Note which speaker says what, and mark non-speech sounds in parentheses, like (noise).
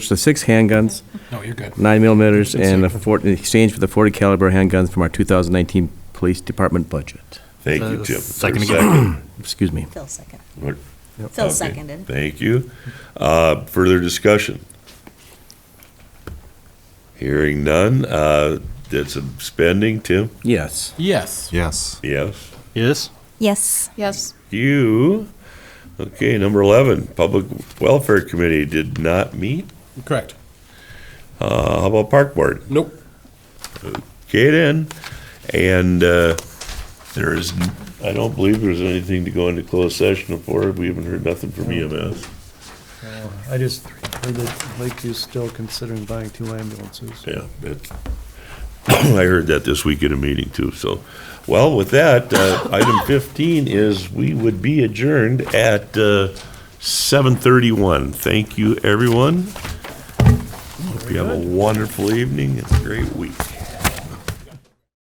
Speaker 1: So six handguns,
Speaker 2: No, you're good.
Speaker 1: nine millimeters,
Speaker 2: It's
Speaker 1: and a
Speaker 2: safer.
Speaker 1: fort, in exchange for the forty caliber handguns from our two thousand nineteen police department budget.
Speaker 3: Thank
Speaker 4: Uh,
Speaker 3: you, Tim.
Speaker 4: second
Speaker 3: Is there a
Speaker 1: Excuse me.
Speaker 5: Phil second.
Speaker 3: What?
Speaker 5: Phil
Speaker 3: Okay.
Speaker 5: seconded.
Speaker 3: Thank you. Uh, Further discussion? Hearing none. Uh, Did some spending, Tim?
Speaker 1: Yes.
Speaker 2: Yes.
Speaker 4: Yes.
Speaker 3: Yes.
Speaker 4: Yes?
Speaker 5: Yes.
Speaker 6: Yes.
Speaker 3: You? Okay, number 11, Public Welfare Committee did not meet.
Speaker 2: Correct.
Speaker 3: Uh, How about Park Board?
Speaker 2: Nope.
Speaker 3: Okay, then. And uh, there is, I don't believe there's anything to go into closed session for. We haven't heard nothing from E EMS.
Speaker 7: I just heard that Lakeview's still considering buying two ambulances.
Speaker 3: Yeah, that's, (clears throat) I heard that this week in a meeting too, so. Well, with that, uh, (coughs) item fifteen is we would be adjourned at, uh, seven thirty-one. Thank you, everyone. Hope you have a wonderful evening and a great week.